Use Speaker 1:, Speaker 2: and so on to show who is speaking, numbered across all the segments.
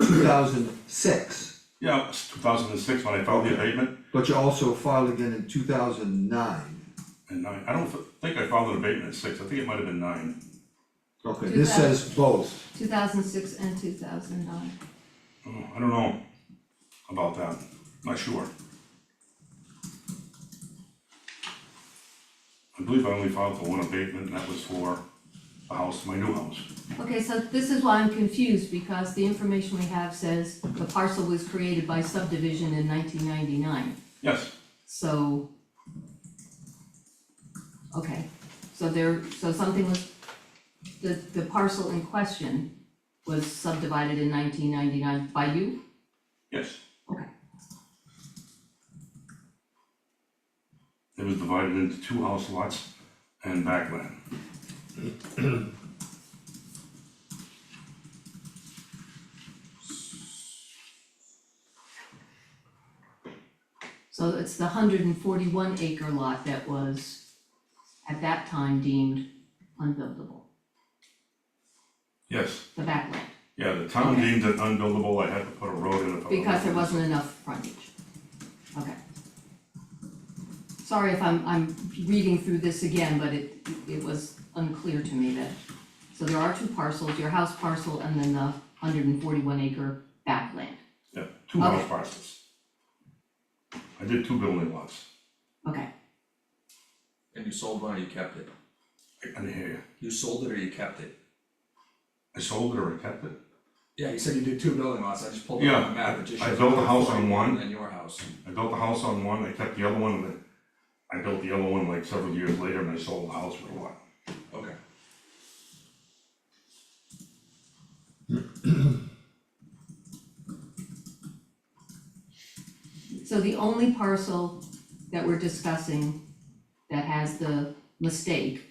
Speaker 1: two thousand six,
Speaker 2: Yeah, it was two thousand and six when I filed the abatement,
Speaker 1: but you also filed again in two thousand nine.
Speaker 2: and nine, I don't f- think I filed an abatement at six, I think it might have been nine.
Speaker 1: Okay, this says both,
Speaker 3: two thousand six and two thousand nine.
Speaker 2: Oh, I don't know about that, not sure. I believe I only filed for one abatement, and that was for a house, my new house.
Speaker 3: Okay, so this is why I'm confused, because the information we have says the parcel was created by subdivision in nineteen ninety-nine,
Speaker 2: Yes,
Speaker 3: so. Okay, so there, so something was, the, the parcel in question was subdivided in nineteen ninety-nine by you?
Speaker 2: yes,
Speaker 3: Okay,
Speaker 2: it was divided into two house lots and backland.
Speaker 3: so it's the hundred and forty-one acre lot that was at that time deemed unbuildable,
Speaker 2: Yes,
Speaker 3: the backland.
Speaker 2: yeah, the town
Speaker 3: Okay.
Speaker 2: deemed it unbuildable, I had to put a road in it.
Speaker 3: Because there wasn't enough frontage. Okay. Sorry if I'm, I'm reading through this again, but it, it was unclear to me that, so there are two parcels, your house parcel and then the hundred and forty-one acre backland.
Speaker 2: Yeah, two house
Speaker 3: Okay.
Speaker 2: parcels. I did two building lots,
Speaker 3: Okay,
Speaker 4: And you sold one or you kept it?
Speaker 2: I didn't hear you.
Speaker 4: You sold it or you kept it?
Speaker 2: I sold it or I kept it?
Speaker 4: Yeah, you said you did two building lots, I just pulled it
Speaker 2: Yeah,
Speaker 4: up on the map, it just
Speaker 2: I- I
Speaker 4: showed.
Speaker 2: built a house on
Speaker 4: 41
Speaker 2: one.
Speaker 4: And then your house.
Speaker 2: I built the house on one, I kept the other one, and then I built the other one like several years later, and I sold the house for a lot.
Speaker 4: Okay.
Speaker 3: so the only parcel that we're discussing that has the mistake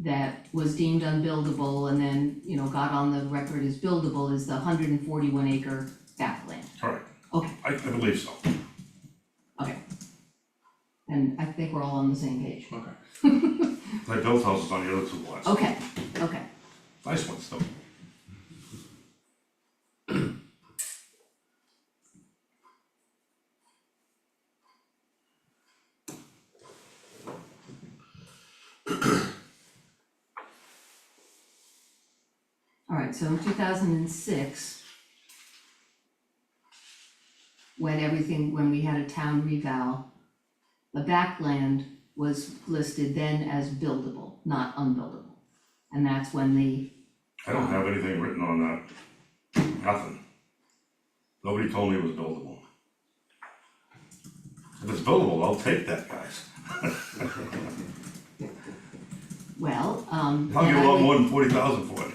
Speaker 3: that was deemed unbuildable and then, you know, got on the record as buildable is the hundred and forty-one acre backland.
Speaker 2: Correct,
Speaker 3: Okay,
Speaker 2: I, I believe so.
Speaker 3: Okay. And I think we're all on the same page.
Speaker 4: Okay.
Speaker 2: I built houses on the other two lots,
Speaker 3: Okay, okay.
Speaker 2: nice ones though.
Speaker 3: All right, so in two thousand and six, when everything, when we had a town revow, the backland was listed then as buildable, not unbuildable. And that's when the,
Speaker 2: I don't have anything written on that, nothing. Nobody told me it was buildable. If it's buildable, I'll take that, guys.
Speaker 3: well, um,
Speaker 2: I'll
Speaker 3: then
Speaker 2: give a
Speaker 3: I
Speaker 2: lot
Speaker 3: would-
Speaker 2: more than forty thousand for it.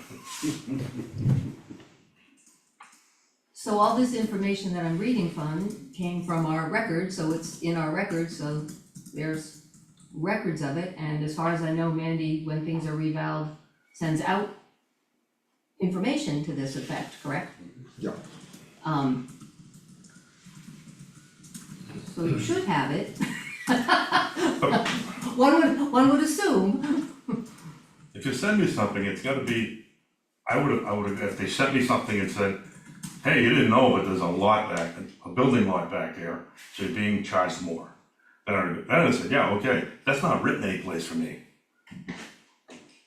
Speaker 3: So all this information that I'm reading from came from our record, so it's in our record, so there's records of it, and as far as I know, Mandy, when things are revalved, sends out information to this effect, correct?
Speaker 1: yeah,
Speaker 3: Um. So you should have it. One would, one would assume,
Speaker 2: If you send me something, it's gotta be, I would've, I would've, if they sent me something and said, hey, you didn't know, but there's a lot back, a building lot back there, so you're being charged more. Then I, then I said, yeah, okay, that's not written anyplace for me.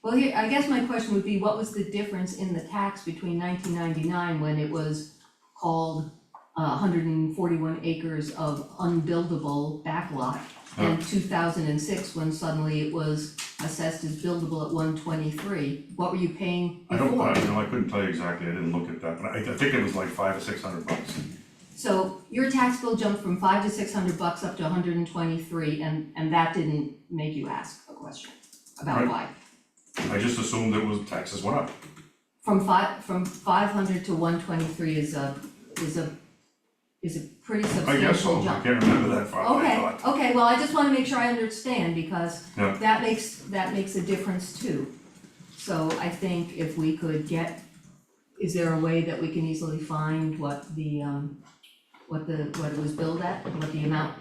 Speaker 3: well, here, I guess my question would be, what was the difference in the tax between nineteen ninety-nine when it was called uh, hundred and forty-one acres of unbuildable backlot?
Speaker 2: Oh.
Speaker 3: And two thousand and six, when suddenly it was assessed as buildable at one twenty-three, what were you paying
Speaker 2: I
Speaker 3: before?
Speaker 2: don't, I, you know, I couldn't tell you exactly, I didn't look at that, but I, I think it was like five or six hundred bucks.
Speaker 3: So your tax bill jumped from five to six hundred bucks up to hundred and twenty-three, and, and that didn't make you ask a question about
Speaker 2: Right.
Speaker 3: why?
Speaker 2: I just assumed it was, taxes went up.
Speaker 3: From five, from five hundred to one twenty-three is a, is a, is a pretty
Speaker 2: I guess so,
Speaker 3: substantial
Speaker 2: I
Speaker 3: jump.
Speaker 2: can't remember that far, I thought.
Speaker 3: Okay, okay, well, I just wanna make sure I understand, because
Speaker 2: Yeah.
Speaker 3: that makes, that makes a difference too. So I think if we could get, is there a way that we can easily find what the, um, what the, what it was billed at, what the amount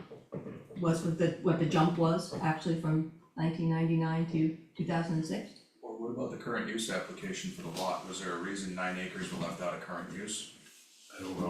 Speaker 3: was, what the, what the jump was actually from nineteen ninety-nine to two thousand and six?
Speaker 4: Or what about the current use application for the lot, was there a reason nine acres were left out of current use?
Speaker 2: I don't